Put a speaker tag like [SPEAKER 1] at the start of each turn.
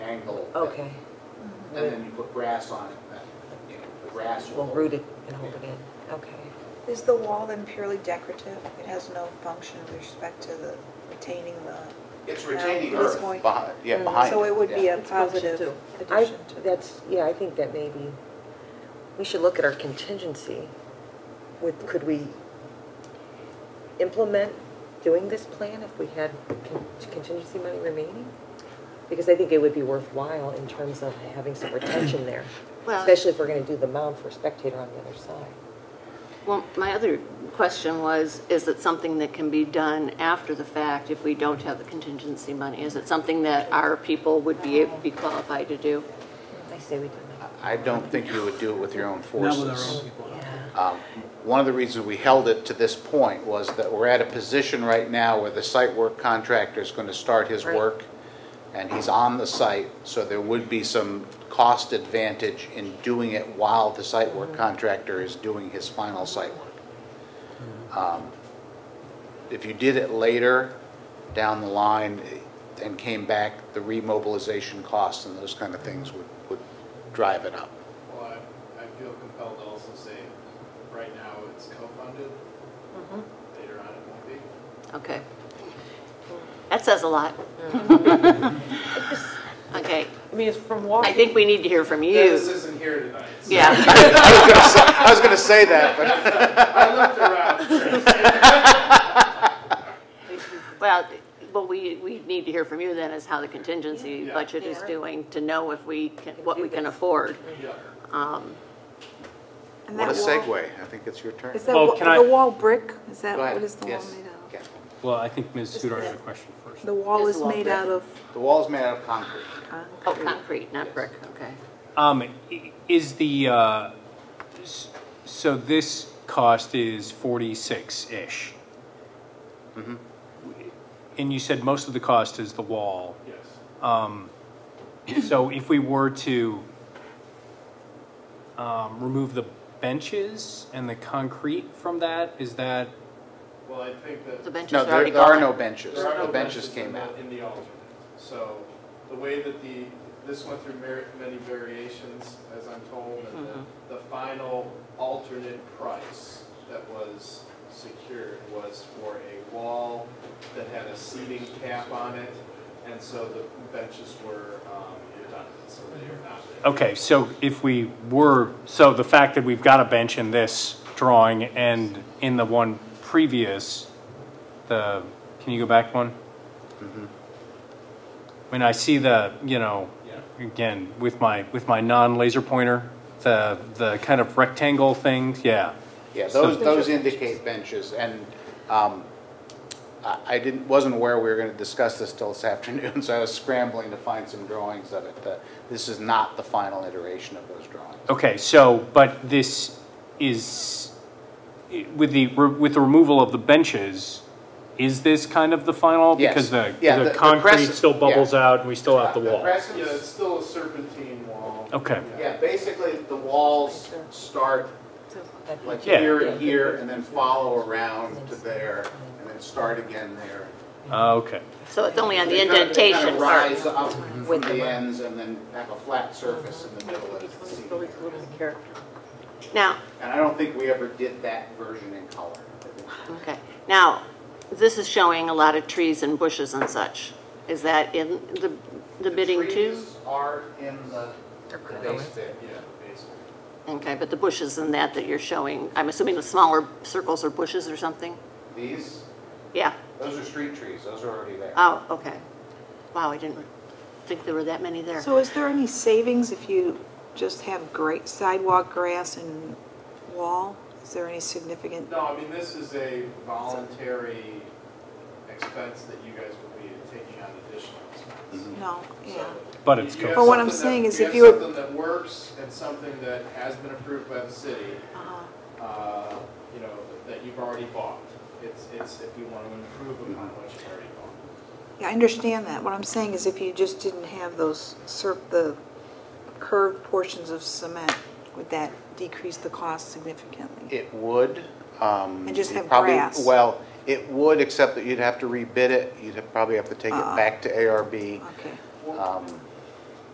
[SPEAKER 1] Okay,
[SPEAKER 2] And then you put grass on it, that, you know, the grass will
[SPEAKER 1] we'll
[SPEAKER 2] hold
[SPEAKER 1] root
[SPEAKER 2] it.
[SPEAKER 1] it and hold it in, okay.
[SPEAKER 3] Is the wall then purely decorative? It has no function with respect to the retaining the,
[SPEAKER 4] It's retaining
[SPEAKER 3] Yeah, it's
[SPEAKER 4] earth
[SPEAKER 3] going-
[SPEAKER 4] behind, yeah,
[SPEAKER 1] Mhm.
[SPEAKER 4] behind
[SPEAKER 3] so it
[SPEAKER 4] it.
[SPEAKER 3] would be
[SPEAKER 2] yeah.
[SPEAKER 3] a positive
[SPEAKER 1] I,
[SPEAKER 3] addition to.
[SPEAKER 1] that's, yeah, I think that maybe, we should look at our contingency. Would, could we implement doing this plan if we had con- contingency money remaining? Because I think it would be worthwhile in terms of having some retention there,
[SPEAKER 5] Well-
[SPEAKER 1] especially if we're gonna do the mound for spectator on the other side.
[SPEAKER 5] Well, my other question was, is it something that can be done after the fact if we don't have the contingency money? Is it something that our people would be, be qualified to do?
[SPEAKER 1] I say we do that.
[SPEAKER 4] I don't think you would do it with your own
[SPEAKER 6] Not
[SPEAKER 4] forces.
[SPEAKER 6] with our own people.
[SPEAKER 4] Um, One of the reasons we held it to this point was that we're at a position right now where the site work contractor is going to start his
[SPEAKER 1] Right.
[SPEAKER 4] work, and he's on the site, so there would be some cost advantage in doing it while the site work contractor is doing his final site work. Um, If you did it later, down the line, eh, and came back, the remobilization costs and those kind of things would, would drive it up.
[SPEAKER 7] Well, I, I feel compelled to also say, right now it's co-funded. Later on it won't be.
[SPEAKER 5] Okay. That says a lot. Okay,
[SPEAKER 8] I mean, it's from
[SPEAKER 5] I
[SPEAKER 8] walking.
[SPEAKER 5] think we need to hear from
[SPEAKER 7] Dennis
[SPEAKER 5] you.
[SPEAKER 7] isn't here tonight. so
[SPEAKER 4] I
[SPEAKER 5] Yeah,
[SPEAKER 4] was gonna say- I was going to say that, but...
[SPEAKER 7] I looked around.
[SPEAKER 5] well, but we, we need to hear from you then is how the contingency
[SPEAKER 7] Yeah.
[SPEAKER 5] budget is
[SPEAKER 3] Yeah.
[SPEAKER 5] doing to know if we can, what we can afford.
[SPEAKER 7] Yeah.
[SPEAKER 3] And
[SPEAKER 4] What a
[SPEAKER 3] that wall-
[SPEAKER 4] segue. I think it's your turn.
[SPEAKER 3] Is that,
[SPEAKER 6] Oh,
[SPEAKER 3] wa-
[SPEAKER 6] can I-
[SPEAKER 3] the wall brick, is that,
[SPEAKER 4] Go ahead.
[SPEAKER 3] what is the wall
[SPEAKER 4] Yes.
[SPEAKER 3] made out
[SPEAKER 4] Yes.
[SPEAKER 6] Well, I think Ms.
[SPEAKER 3] Just
[SPEAKER 6] Sudar
[SPEAKER 3] that-
[SPEAKER 6] had a question first.
[SPEAKER 3] of? The wall
[SPEAKER 5] Yes,
[SPEAKER 3] is
[SPEAKER 5] the wall
[SPEAKER 3] made
[SPEAKER 5] brick.
[SPEAKER 3] out of
[SPEAKER 4] The wall's made out of concrete.
[SPEAKER 5] Oh,
[SPEAKER 3] concrete.
[SPEAKER 5] concrete, not brick, okay.
[SPEAKER 6] Um, i- is the, uh, s- so this cost is forty-six-ish? And you said most of the cost is the wall.
[SPEAKER 7] Yes.
[SPEAKER 6] So if we were to um, remove the benches and the concrete from that, is that,
[SPEAKER 7] Well, I think that.
[SPEAKER 5] The benches
[SPEAKER 4] No,
[SPEAKER 5] are
[SPEAKER 4] there,
[SPEAKER 5] already
[SPEAKER 4] there are
[SPEAKER 5] gone.
[SPEAKER 4] no benches.
[SPEAKER 7] There are no
[SPEAKER 4] The benches
[SPEAKER 7] in
[SPEAKER 4] came
[SPEAKER 7] the-
[SPEAKER 4] out.
[SPEAKER 7] In the alternate. So the way that the, this went through mer- many variations, as I'm told, and the, the final alternate price that was secured was for a wall that had a seating cap on it, and so the benches were um, redundant, so they are not there.
[SPEAKER 6] okay, so if we were, so the fact that we've got a bench in this drawing and in the one previous, the, can you go back one? When I see the, you know, again, with my, with my non-laser pointer, the, the kind of rectangle things, yeah.
[SPEAKER 4] Yeah, those, those indicate benches. And um, I I didn't, wasn't aware we were going to discuss this till this afternoon, so I was scrambling to find some drawings of it. The- This is not the final iteration of those drawings.
[SPEAKER 6] Okay, so, but this is, with the, with the removal of the benches, is this kind of the final?
[SPEAKER 4] Yes.
[SPEAKER 6] Because the,
[SPEAKER 4] Yeah, the-
[SPEAKER 6] the
[SPEAKER 4] the
[SPEAKER 6] concrete
[SPEAKER 4] crest-
[SPEAKER 6] still bubbles
[SPEAKER 4] yeah.
[SPEAKER 6] out and we still have the wall.
[SPEAKER 4] crest
[SPEAKER 7] Yeah, it's
[SPEAKER 4] is-
[SPEAKER 7] still a serpentine wall.
[SPEAKER 6] Okay.
[SPEAKER 4] Yeah, basically, the walls start like
[SPEAKER 6] Yeah.
[SPEAKER 4] here and here, and then follow around to there, and then start again there.
[SPEAKER 6] Uh, Okay,
[SPEAKER 5] So it's only on the
[SPEAKER 4] They kinda- they kinda
[SPEAKER 5] indentation part.
[SPEAKER 4] rise up from
[SPEAKER 1] With the
[SPEAKER 4] the
[SPEAKER 1] line.
[SPEAKER 4] ends and then have a flat surface in the middle as the seating area.
[SPEAKER 5] Now,
[SPEAKER 4] And I don't think we ever did that version in color.
[SPEAKER 5] Okay, now, this is showing a lot of trees and bushes and such. Is that in the, the bidding too?
[SPEAKER 4] trees are in the the base bid.
[SPEAKER 7] Yeah, basically.
[SPEAKER 5] Okay, but the bushes and that that you're showing, I'm assuming the smaller circles are bushes or something?
[SPEAKER 4] These,
[SPEAKER 5] Yeah,
[SPEAKER 4] those are street trees, those are already there.
[SPEAKER 5] oh, okay. Wow, I didn't think there were that many there.
[SPEAKER 3] So is there any savings if you just have great sidewalk grass and wall? Is there any significant?
[SPEAKER 7] No, I mean, this is a voluntary expense that you guys will be taking on additional expense.
[SPEAKER 3] No,
[SPEAKER 7] So,
[SPEAKER 3] yeah.
[SPEAKER 6] but it's
[SPEAKER 7] you have
[SPEAKER 3] But
[SPEAKER 6] cool.
[SPEAKER 3] what I'm
[SPEAKER 7] something that-
[SPEAKER 3] saying is if you
[SPEAKER 7] You have
[SPEAKER 3] were-
[SPEAKER 7] something that works and something that has been approved by the city,
[SPEAKER 3] Uh-huh.
[SPEAKER 7] uh, you know, that you've already bought. It's, it's if you want to improve upon what you've already bought.
[SPEAKER 3] Yeah, I understand that. What I'm saying is if you just didn't have those serp, the curved portions of cement, would that decrease the cost significantly?
[SPEAKER 4] It would. um,
[SPEAKER 3] And just
[SPEAKER 4] you
[SPEAKER 3] have
[SPEAKER 4] probably-
[SPEAKER 3] grass.
[SPEAKER 4] Well, it would,
[SPEAKER 3] Uh-uh.
[SPEAKER 4] except that you'd have to rebid it, you'd have- probably have to take it
[SPEAKER 3] Ah.
[SPEAKER 4] back to ARB.
[SPEAKER 3] Okay.
[SPEAKER 4] Um,